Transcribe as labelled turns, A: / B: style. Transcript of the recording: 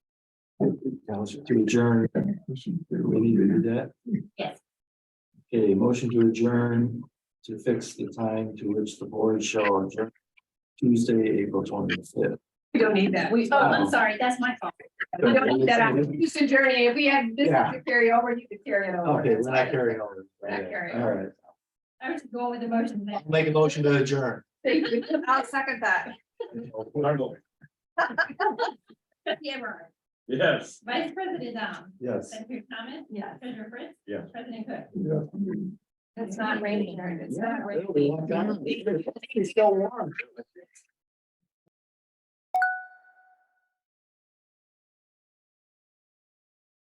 A: Council to adjourn, we need to do that?
B: Yes.
A: Okay, motion to adjourn to fix the time to which the board shall adjourn. Tuesday, April twenty-fifth.
C: We don't need that. We,
B: Oh, I'm sorry, that's my fault.
C: we don't need that on Houston Journey. If we had business to carry over, you could carry it over.
A: Okay, we're not carrying over.
C: We're not carrying
A: All
C: over.
A: right,
B: I was going with the motion then.
A: I'll make a motion to adjourn.
C: Thank you. I'll second that.
B: Cameron,
D: Yes.
B: Vice President
C: um,
B: Dom,
A: Yes.
B: Senator Thomas,
C: Yes.
B: Treasurer Prince.
D: Yes.
B: President Cook.
C: It's not raining. It's
A: Yeah,
C: not
A: it'll be
C: raining.
A: warm. It's still warm.